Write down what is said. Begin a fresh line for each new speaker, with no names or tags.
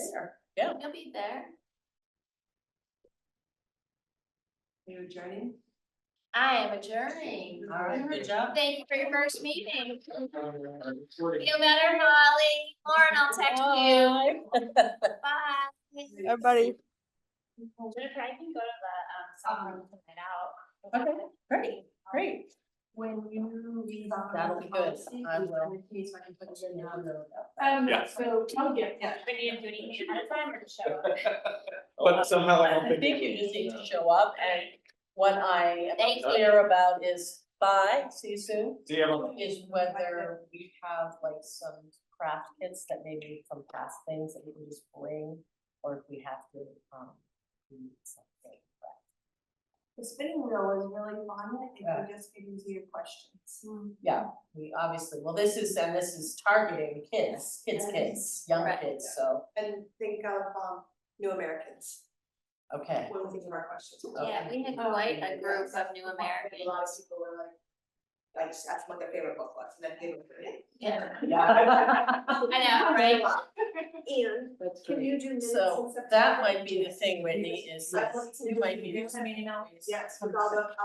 there.
Yeah.
You'll be there.
You're joining?
I am adjourning.
All right.
Good job.
Thank you for your first meeting.
Recording.
Feel better, Molly. Lauren, I'll text you. Bye.
Everybody.
Jennifer, I can go to the, um, software and print it out.
Okay, great, great.
When you leave on.
That'll be good. I will.
Please, when you put it in.
Um,
Yeah.
so, oh, yeah,
Yeah.
We need to do anything ahead of time or just show up.
But somehow I don't
I
think.
think you just need to show up and what I
Thank
am
you.
clear about is bye, see you soon,
See everyone.
is whether we have like some craft kits that maybe from past things that we can just bring, or if we have to, um, do something.
The spinning wheel is really fun, it
Yeah.
would just get easier questions.
Yeah, we obviously, well, this is, and this is targeting kids, kids, kids, young
Right.
kids, so,
And think of, um, new Americans,
okay.
when we think of our questions.
Yeah, we had quite a group of new
A lot of
Americans.
people were like, I just asked what their favorite book was, and then they were.
Yeah.
Yeah.
I know, right?
And
That's
can you do minutes
So
in September?
that might be the thing, Whitney, is
I
that
want to
you might be.
do- Yes, with all the